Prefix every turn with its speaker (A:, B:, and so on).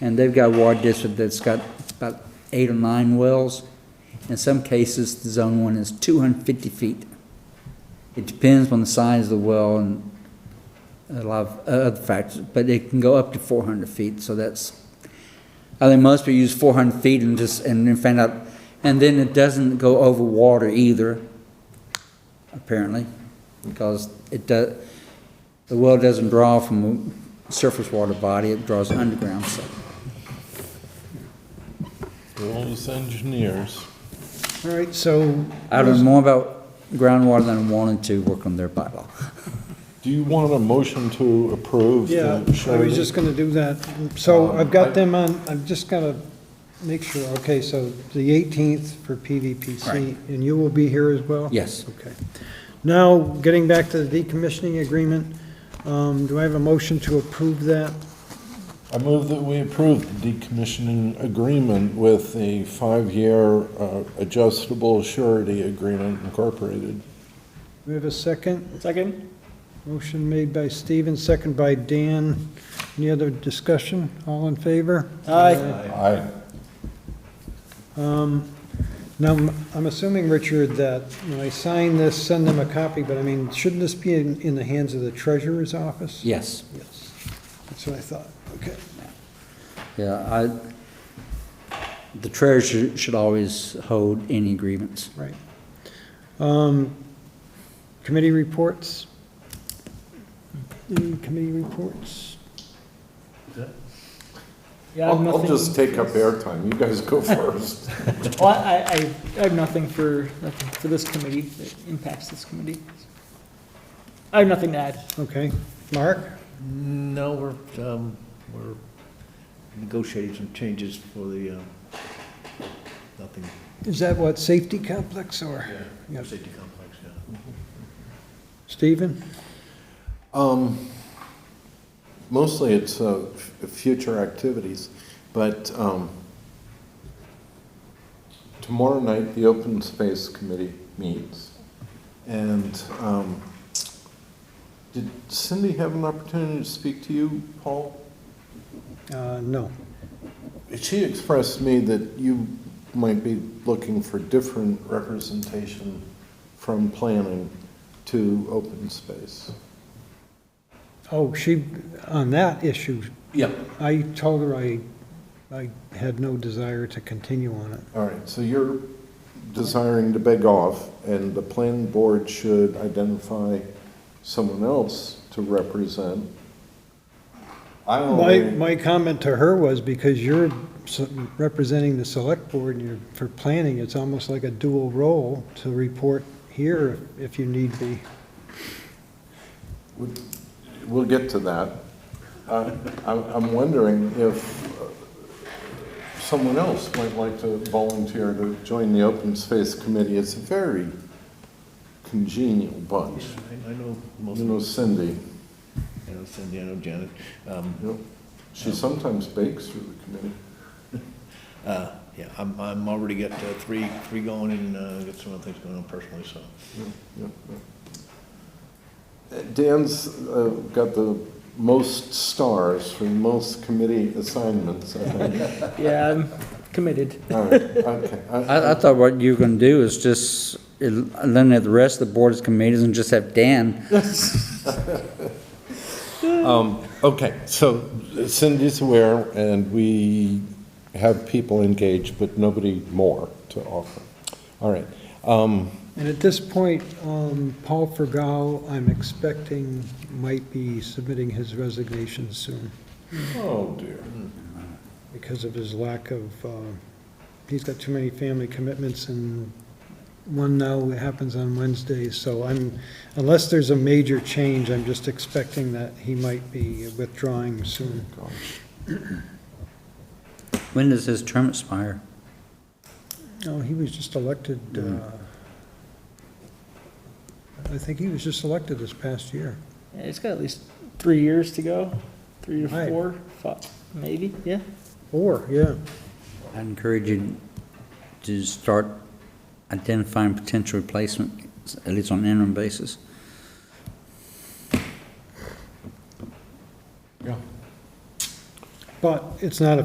A: And they've got a water district that's got about eight or nine wells. In some cases, the zone one is two hundred and fifty feet. It depends on the size of the well and a lot of other factors, but it can go up to four hundred feet, so that's, I think most people use four hundred feet and just, and then find out, and then it doesn't go over water either, apparently, because it does, the well doesn't draw from a surface water body, it draws underground, so.
B: Those engineers.
C: All right, so,
A: I learned more about groundwater than I wanted to work on their bylaw.
B: Do you want a motion to approve? the
C: yeah, I was
B: surety?
C: just gonna do that.
A: Um,
C: So I've got them on, I've just gotta make sure, okay, so the 18th for PVPC,
A: Right.
C: and you will be here as well?
A: Yes.
C: Okay. Now, getting back to the decommissioning agreement, um, do I have a motion to approve that?
B: I move that we approve the decommissioning agreement with a five-year uh, adjustable surety agreement incorporated.
C: Do we have a second?
D: Second?
C: Motion made by Steven, second by Dan. Any other discussion? All in favor?
D: Aye.
B: Aye.
C: Um, Now, I'm- I'm assuming, Richard, that when I sign this, send them a copy, but I mean, shouldn't this be in, in the hands of the treasurer's office?
A: Yes,
C: Yes. That's what I thought, okay.
A: yeah, I, the treasurer should always hold any grievance.
C: Right. Um, Committee reports? Any committee reports?
D: Yeah, I have
B: I'll I'll
D: nothing.
B: just take up airtime. You guys go first.
D: Well, I, I, I have nothing for, nothing for this committee that impacts this committee. I have nothing to add.
C: Okay. Mark?
E: No, we're, um, we're negotiating some changes for the, um, nothing,
C: Is that what, safety complex or? Yes.
E: safety complex, yeah.
C: Stephen?
B: Um, Mostly it's uh, f- future activities, but um, tomorrow night, the Open Space Committee meets. And um, did Cindy have an opportunity to speak to you, Paul?
C: Uh, no.
B: She expressed to me that you might be looking for different representation from planning to open space.
C: Oh, she, on that issue,
B: Yep.
C: I told her I, I had no desire to continue on it.
B: All right, so you're desiring to beg off, and the planning board should identify someone else to represent. I
C: My,
B: only,
C: my comment to her was because you're s- representing the select board and you're, for planning, it's almost like a dual role to report here if you need be.
B: we'll get to that. Uh, I'm I'm wondering if uh, someone else might like to volunteer to join the open space committee. It's a very congenial bunch.
E: I, I know most,
B: You
E: of
B: know Cindy,
E: you know, Cindy, I know Janet. Um,
B: you know, she sometimes bakes for the committee.
E: uh, yeah, I'm, I'm already got uh, three, three going and, uh, got some other things going on personally, so.
B: Yeah, yeah. Uh, Dan's uh, got the most stars for most committee assignments, I think.
D: Yeah, I'm committed.
B: All right, okay. I-
A: I, I thought what you were gonna do is just eliminate the rest of the board's committees and just have Dan.
B: Okay, so Cindy's aware, and we have people engaged, but nobody more to offer. All right. um,
C: And at this point, um, Paul Fergal, I'm expecting might be submitting his resignation soon
B: Oh, dear.
C: because of his lack of, uh, he's got too many family commitments and one now happens on Wednesdays, so I'm, unless there's a major change, I'm just expecting that he might be withdrawing soon.
A: When does his term expire?
C: No, he was just elected, uh, I think he was just elected this past year.
D: Yeah, It's got at least three years to go, three to
C: Right.
D: four, five, maybe, yeah.
C: Or, yeah.
A: I encourage you to start identifying potential replacements, at least on an interim basis.
B: Yeah.
C: But it's not a